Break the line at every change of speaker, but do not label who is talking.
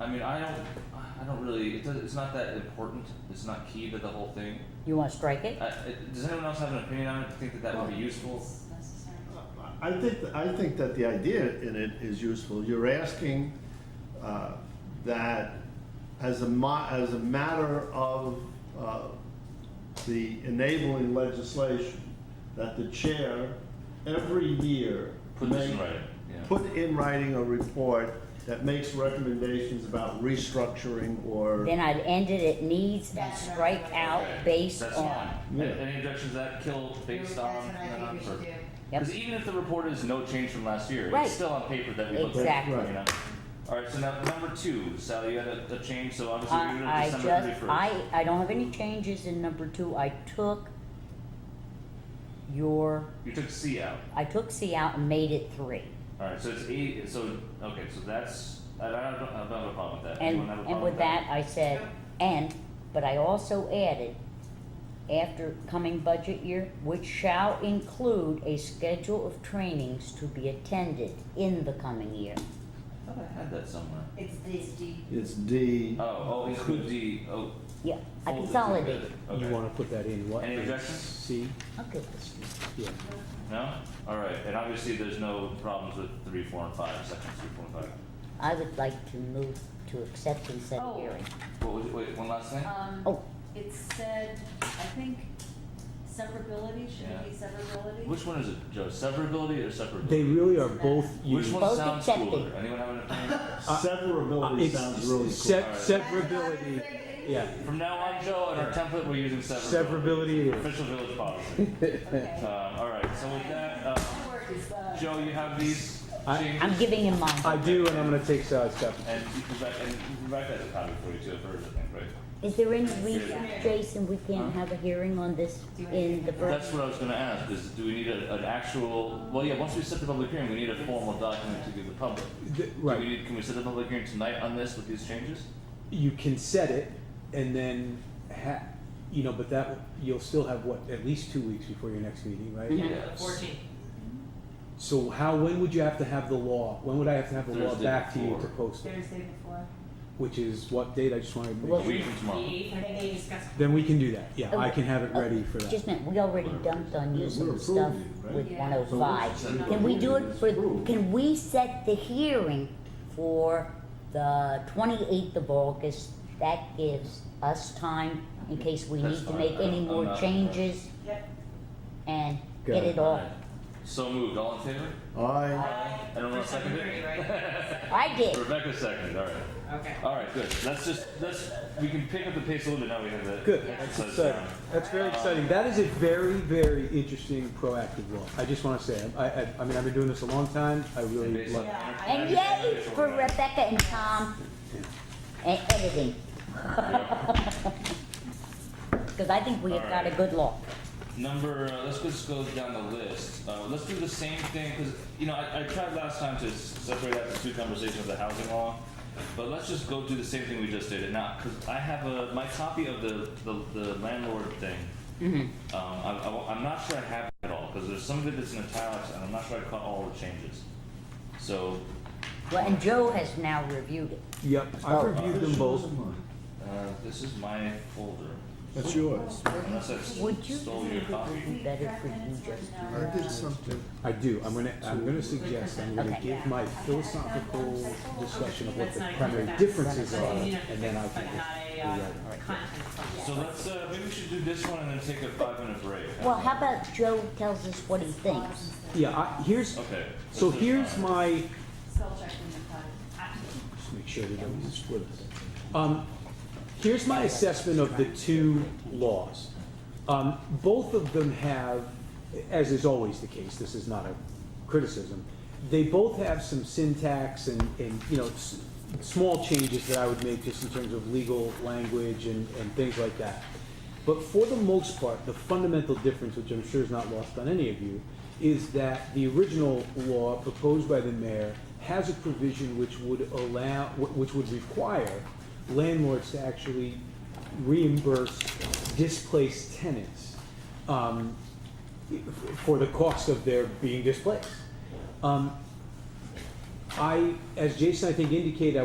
I mean, I don't, I don't really. It does, it's not that important. It's not key to the whole thing.
You wanna strike it?
I, it, does anyone else have an opinion on it? Think that that would be useful?
Necessary.
I think, I think that the idea in it is useful. You're asking uh, that as a, mo- as a matter of uh, the enabling legislation, that the chair every year.
Put this in
make-
writing, yeah.
Put in writing a report that makes recommendations about restructuring or.
Then I'd end it at needs and
That's what I
strike
would
out
Okay,
based
That's
on.
fine.
Yeah.
A- Any objections to that kill based
No,
on?
That's what I think we should do.
Yep.
Because even if the report is no change from last year,
Right.
it's still on paper that we looked at.
Exactly.
You know? All right. So now number two, Sally, you had a, a change. So obviously we you're
I, I
December thirty
just,
first.
I, I don't have any changes in number two, I took your,
you took C out.
I took C out and made it three.
All right. So it's eight. So okay. So that's. I I don't, I don't have a problem with that.
And,
Anyone have a
and
problem
with that, I said, and, but I also added, after coming budget year, which shall include a schedule of trainings to be attended in the coming year.
I thought I had that somewhere.
It's this D.
It's D.
Oh, oh, include the, oh.
Yeah, I
fold it
consolidated. Oh,
together.
You
Okay,
wanna put that in what?
Any objections?
C,
I'll give this.
yeah.
no? All right, and obviously there's no problems with three, four, and five, sections three, four, and five.
I would like to move to accept and set a
Oh.
hearing.
What was, wait, one last thing?
Um,
Oh.
it said, I think severability, should
Yeah.
it be severability?
Which one is it, Joe, severability or
They
separability?
really are both
Which
used.
one
Both
sounds
accepted.
cooler? Anyone have an opinion?
Severability
uh,
It's-
sounds really cool.
se- Severability, yeah.
From now on, Joe, in our template, we're using severability.
Severability.
Official village policy. Um,
Okay.
all right, so with that, uh,
My word is, uh,
Joe, you have these
I-
changes?
I'm giving him
I
mine.
do, and I'm gonna take Sally's copy.
And Rebecca, and Rebecca has a copy for you too, of hers, I think, right?
Is there any reason, Jason, we can't
Huh?
have a hearing on this in the
That's
first?
what I was gonna ask, is do we need a, an actual, well, yeah, once we set the public hearing, we need a formal document to give the public.
The-
Do we
Right,
need, can we set a public hearing tonight on this with these changes?
you can set it, and then ha, you know, but that, you'll still have what, at least two weeks before your next meeting, right?
Yes.
Fourteen.
So how, when would you have to have the law, when would I have to have the law
Thursday
back to you to
before.
post it?
Thursday before.
Which is what date, I just wanna
A
make
Well-
sure.
week from
The
tomorrow.
eighth, I think they discussed.
Then we can do that, yeah, I can have it
Oh,
ready for that.
Just a minute, we already dumped on you
We're
some stuff
approving, right?
with
Yeah.
one oh five.
So we're-
Can we do it
It's
for,
approved.
can we set the hearing for the twenty-eighth of August? That gives us time in case we
That's
need to
fine.
make any
I'm- I'm
more
not-
changes
Yep.
and
Good.
get it all.
So moved, all in favor?
I,
Aye. Anyone
For
second
secondary,
it?
I did.
Rebecca seconded, all right.
Okay.
All right, good. Let's just, let's, we can pick up the pace a little bit now we have that.
Good,
Yeah.
that's
So it's
exciting.
down.
That's very exciting. That is a very, very interesting proactive law. I just want to say, I, I, I mean, I've been doing this a long time. I really
Based on-
love it.
Yeah, I-
And yay for Rebecca and Tom and editing. Cause I think we have got a
Alright.
good law.
Number, uh, let's just go down the list. Uh, let's do the same thing because you know I, I tried last time to s- separate out the two conversations of the housing law, but let's just go do the same thing we just did. And now, because I have a my copy of the the, the landlord thing. Um, I, I, wa- I'm not sure I have it all because there's some of it that's in italics, and I'm not sure I caught all the changes. So,
Well, and Joe has now reviewed it.
Yep, I've reviewed them both.
uh, this is my folder.
that's yours.
Unless I s-
Would you
stole
think
your
it
copy.
would be better for you
Reference
just
or
I
no?
did something.
I do. I'm gonna, I'm gonna suggest, I'm gonna
Okay.
give my philosophical discussion of what the primary differences are, and then I
But had a,
can.
uh, content clause.
So let's uh, maybe we should do this one and then take a five minute break.
Well, how about Joe tells us what he thinks?
Yeah, I, here's,
Okay.
so
this is
here's
fine.
my,
Spell check when you cut it.
Just make sure they don't use split us. Um, here's my assessment of the two laws. Um, both of them have, as is always the case, this is not a criticism, they both have some syntax and, and, you know, s- small changes that I would make just in terms of legal language and, and things like that. But for the most part, the fundamental difference, which I'm sure is not lost on any of you, is that the original law proposed by the mayor has a provision which would allow, wh- which would require landlords to actually reimburse displaced tenants um, f- for the cost of their being displaced. Um, I, as Jason, I think indicated, I